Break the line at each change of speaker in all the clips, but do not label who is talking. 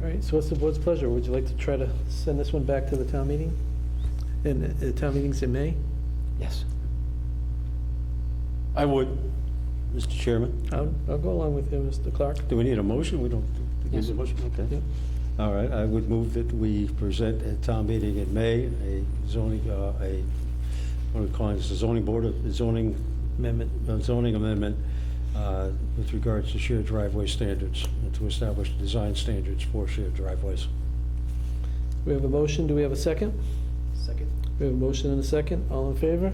right, so what's the board's pleasure? Would you like to try to send this one back to the town meeting? And uh, town meetings in May?
Yes. I would, Mr. Chairman.
I'll, I'll go along with you, Mr. Clark.
Do we need a motion? We don't, do we need a
Yes.
motion?
Yeah.
Okay. All right, I would move that we present at town meeting in May, a zoning, uh, a, what are we calling this, a zoning board, of zoning,
Amendment.
a zoning amendment uh, with regards to shared driveway standards, and to establish design standards for shared driveways.
We have a motion, do we have a second?
Second.
We have a motion and a second, all in favor?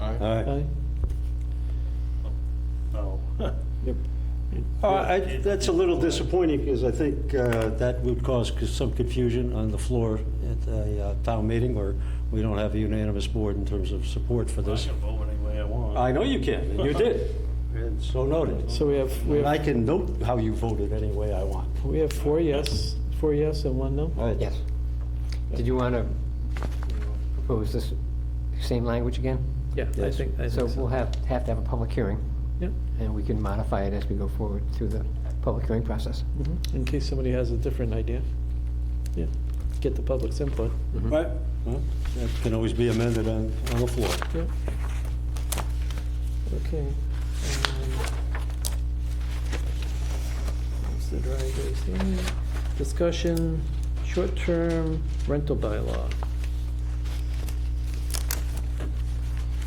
All right.
Aye.
No.
Yep.
Uh, That's a little disappointing, because I think uh, that would cause c- some confusion on the floor at a uh, town meeting, where we don't have a unanimous board in terms of support for
I
this.
can vote any way I want.
I know you can, and you did, and so noted.
So we have, we
And I
have,
can note how you voted any way I want.
we have four yes, four yes and one no?
Yes. Did you want to propose this same language again?
Yeah, I
Yes.
think, I
So
think
we'll
so.
have, have to have a public hearing,
Yep.
and we can modify it as we go forward through the public hearing process.
Mhm. In case somebody has a different idea. Yeah, get the public's input.
Right. That can always be amended on, on the floor.
Yep. Okay. um, What's the driveways here? Discussion, short-term rental bylaw.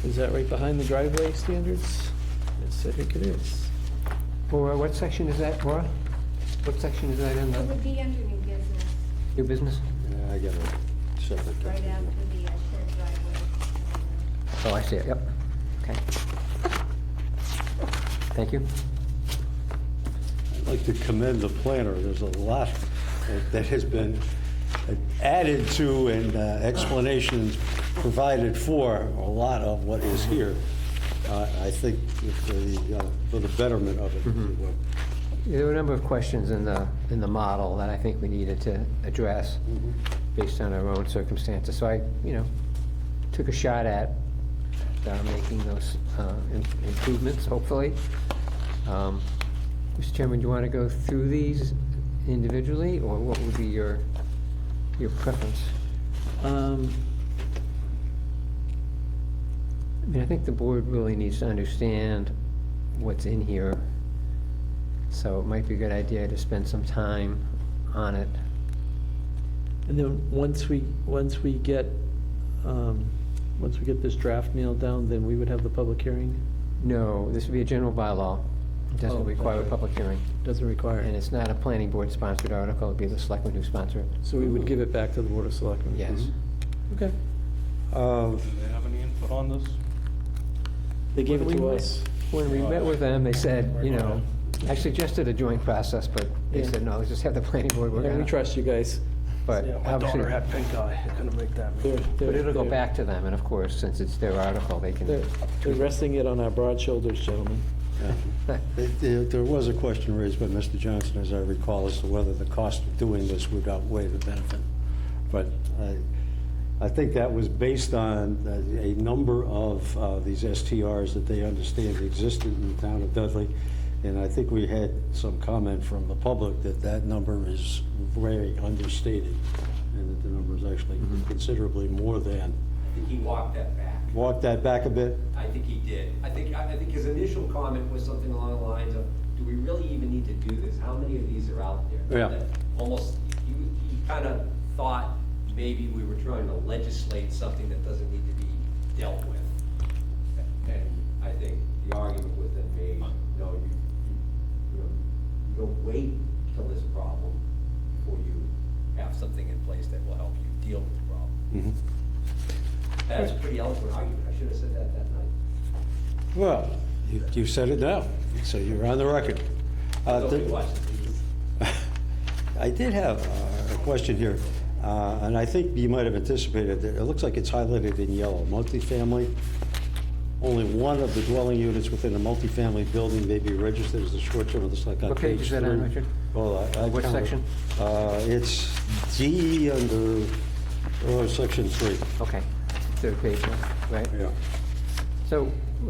Is that right behind the driveway standards? Yes, I think it is.
Or what section is that, Laura? What section is that in
It
the
would be under new business,
new business?
Yeah, I got it. Separate.
right after the uh, shared driveway.
Oh, I see it, yep. Okay. Thank you.
I'd like to commend the planner. There's a lot that- that has been added to and uh, explanations provided for a lot of what is here. Uh, I think for the, uh, for the betterment of it, if you will.
There were a number of questions in the, in the model that I think we needed to address based on our own circumstances. So I, you know, took a shot at uh, making those uh, im- improvements, hopefully. Um, Mr. Chairman, do you want to go through these individually, or what would be your, your preference?
Um,
I mean, I think the board really needs to understand what's in here, so it might be a good idea to spend some time on it.
And then, once we, once we get, um, once we get this draft nailed down, then we would have the public hearing?
No, this would be a general bylaw. It
Oh,
doesn't require a
okay.
public hearing.
Doesn't require
And
it.
it's not a planning board-sponsored article, it'd be the selectmen who sponsor it.
So we would give it back to the Board of Selectmen? Mm-hmm.
Yes.
Okay.
Uh,
Do they have any input on this?
They gave it
When
to
we-
us.
When we met with them, they said, you know, I suggested a joint process, but they
Yeah.
said, no, let's just have the planning board work
And
on
we
it."
trust you guys.
But
Yeah, my
obviously,
daughter had pink eye, I couldn't make that.
They're-
but
they're-
it'll go
they're-
back to them, and of course, since it's their article, they can,
They're they're resting it on our broad shoulders, gentlemen.
yeah. It- it- There was a question raised by Mr. Johnson, as I recall, as to whether the cost of doing this would outweigh the benefit. But I, I think that was based on uh, a number of uh, these STRs that they understand existed in the town of Dudley. And I think we had some comment from the public that that number is very understated and that the number is actually considerably more than.
think he walked that back.
Walk that back a bit.
I think he did. I think, I I think his initial comment was something along the lines of, do we really even need to do this? How many of these are out there?
Yeah.
That Almost, you, you kind of thought maybe we were trying to legislate something that doesn't need to be dealt with. And I think the argument was then made, no, you, you- you, know, you don't wait till this problem before you have something in place that will help you deal with the problem. That's a pretty eloquent argument. I should have said that that night.
Well, you- you said it now, so you're on the record. Uh,
Nobody
th-
watches these.
I did have uh, a question here, uh, and I think you might have anticipated that. It looks like it's highlighted in yellow, multifamily. Only one of the dwelling units within a multifamily building may be registered as a short-term, it looks like on
What
page
page is that on,
three.
Richard?
Well, I- I
What
counted.
section?
Uh, It's D under, oh, section three.
okay, third page, right? So